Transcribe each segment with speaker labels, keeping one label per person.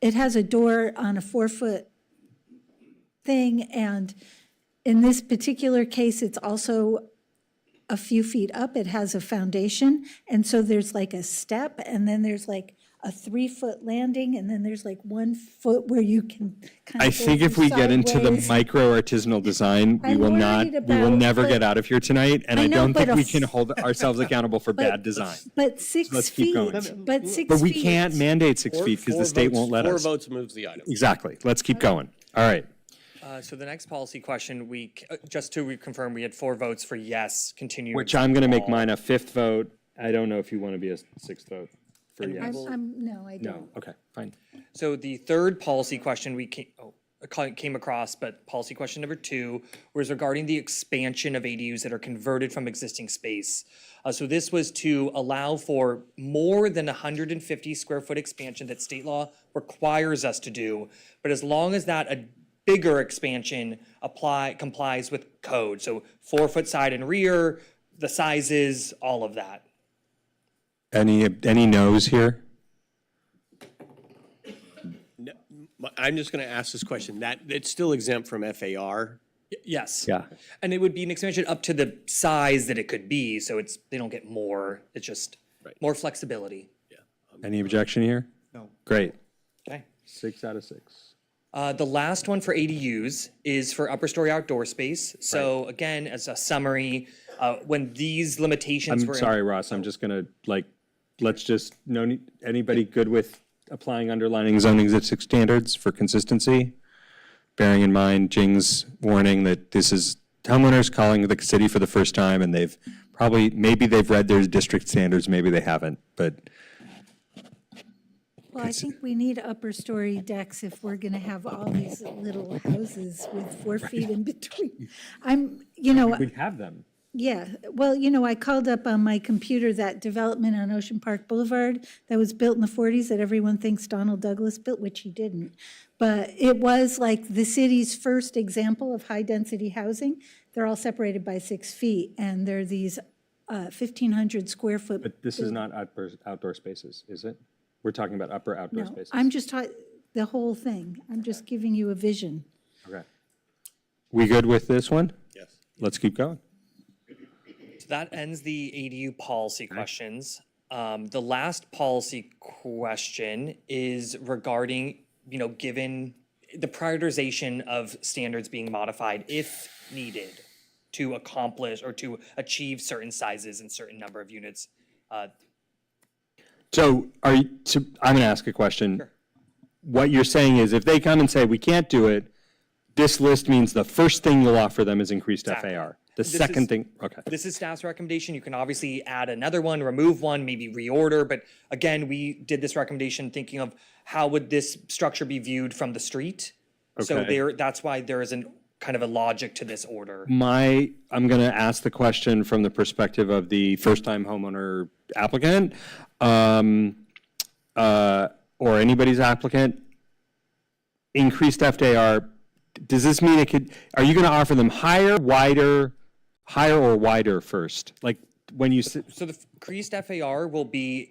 Speaker 1: it has a door on a four-foot thing, and in this particular case, it's also a few feet up, it has a foundation, and so there's like a step, and then there's like a three-foot landing, and then there's like one foot where you can kind of
Speaker 2: I think if we get into the micro artisanal design, we
Speaker 1: I'm
Speaker 2: will not,
Speaker 1: worried
Speaker 2: we will
Speaker 1: about-
Speaker 2: never
Speaker 1: but-
Speaker 2: get out of here tonight. And
Speaker 1: I
Speaker 2: I
Speaker 1: know,
Speaker 2: don't
Speaker 1: but
Speaker 2: think
Speaker 1: a
Speaker 2: we
Speaker 1: f-
Speaker 2: can hold ourselves accountable for bad design.
Speaker 1: But six
Speaker 2: let's
Speaker 1: feet,
Speaker 2: keep going.
Speaker 1: but six feet.
Speaker 2: But we can't mandate six
Speaker 3: Four-
Speaker 2: feet because
Speaker 3: four
Speaker 2: the state
Speaker 3: votes-
Speaker 2: won't let us.
Speaker 3: Four votes moves the item.
Speaker 2: Exactly. Let's keep going. All right.
Speaker 4: Uh, So the next policy question, we, c- uh, just to reconfirm, we had four votes for yes, continue.
Speaker 2: Which I'm going to make mine a fifth vote. I don't know if you want to be a sixth vote for yes.
Speaker 1: I'm- I'm, no, I don't.
Speaker 2: No, okay, fine.
Speaker 4: So the third policy question we came, oh, uh, ca- came across, but policy question number two was regarding the expansion of ADUs that are converted from existing space. Uh, so this was to allow for more than hundred and fifty square foot expansion that state law requires us to do. But as long as that a bigger expansion apply, complies with code, so four foot side and rear, the sizes, all of that.
Speaker 2: Any, any no's here?
Speaker 3: But I'm just going to ask this question. That, it's still exempt from FAR.
Speaker 4: Y- Yes.
Speaker 2: Yeah.
Speaker 4: And it would be an expansion up to the size that it could be, so it's, they don't get more, it's just more flexibility.
Speaker 2: Any objection here? No. Great.
Speaker 4: Okay.
Speaker 2: Six out of six.
Speaker 4: Uh, the last one for ADUs is for upper story outdoor space. So again, as a summary, uh, when these limitations
Speaker 2: I'm
Speaker 4: were. in-
Speaker 2: sorry, Ross, I'm just going to, like, let's just, no, need- anybody good with applying underlining zoning existing standards for consistency? Bearing in mind Jing's warning that this is homeowners calling the city for the first time, and they've probably, maybe they've read their district standards, maybe they haven't, but
Speaker 1: Well, I think we need upper story decks if we're gonna have all these little houses with four feet in between. I'm, you know,
Speaker 2: we have them.
Speaker 1: yeah, well, you know, I called up on my computer that development on Ocean Park Boulevard that was built in the forties that everyone thinks Donald Douglas built, which he didn't. But it was like the city's first example of high-density housing. They're all separated by six feet, and they're these uh, fifteen hundred square foot
Speaker 2: This is not outdoor, outdoor spaces, is it? We're talking about upper outdoor
Speaker 1: No,
Speaker 2: spaces.
Speaker 1: I'm just, ta- the whole thing. I'm just giving you a vision.
Speaker 2: Okay. We good with this one?
Speaker 3: Yes.
Speaker 2: Let's keep going.
Speaker 4: So that ends the ADU policy questions. Um, the last policy question is regarding, you know, given the prioritization of standards being modified if needed to accomplish or to achieve certain sizes and certain number of units. Uh,
Speaker 2: So are you, so I'm going to ask a question. What you're saying is if they come and say, we can't do it, this list means the first thing you'll offer them is increased FAR. The second
Speaker 4: is-
Speaker 2: thing, okay.
Speaker 4: This is staff's recommendation. You can obviously add another one, remove one, maybe reorder, but again, we did this recommendation thinking of how would this structure be viewed from the street? So
Speaker 2: Okay.
Speaker 4: there, that's why there is an, kind of a logic to this order.
Speaker 2: My, I'm going to ask the question from the perspective of the first-time homeowner applicant, um, uh, or anybody's applicant. Increased FAR, does this mean it could, are you going to offer them higher, wider, higher or wider first? Like, when you, s-
Speaker 4: So the f- increased FAR will be,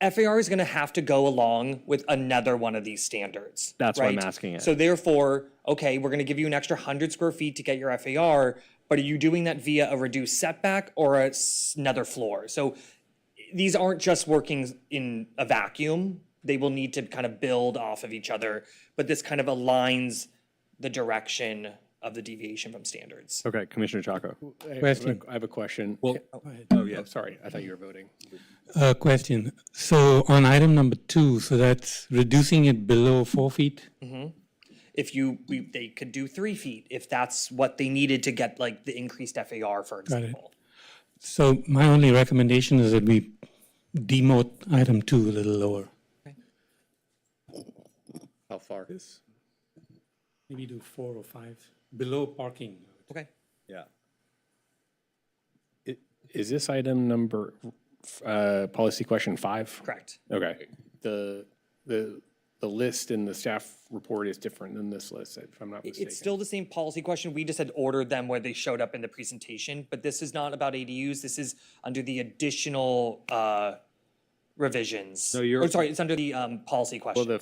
Speaker 4: FAR is gonna have to go along with another one of these standards.
Speaker 2: That's why I'm
Speaker 4: right?
Speaker 2: asking it.
Speaker 4: So therefore, okay, we're gonna give you an extra hundred square feet to get your FAR, but are you doing that via a reduced setback or a s- another floor? So these aren't just working in a vacuum. They will need to kind of build off of each other, but this kind of aligns the direction of the deviation from standards.
Speaker 2: okay, Commissioner Chaco.
Speaker 5: I have, a- I have a question. Well, oh, yeah. Sorry, I thought you were voting.
Speaker 6: A uh, question. So on item number two, so that's reducing it below four feet?
Speaker 4: if you we, they could do three feet if that's what they needed to get like the increased FAR, for example.
Speaker 6: So my only recommendation is that we demote item two a little lower.
Speaker 3: How far?
Speaker 6: Maybe do four or five, below parking.
Speaker 4: Okay.
Speaker 2: Yeah.
Speaker 5: I- Is this item number, uh, policy question five?
Speaker 4: Correct.
Speaker 5: Okay. The, the, the list in the staff report is different than this list, if I'm not mistaken.
Speaker 4: It's still the same policy question. We just had ordered them where they showed up in the presentation, but this is not about ADUs. This is under the additional uh revisions. No,
Speaker 2: you're-
Speaker 4: sorry, it's under the um policy question.
Speaker 5: The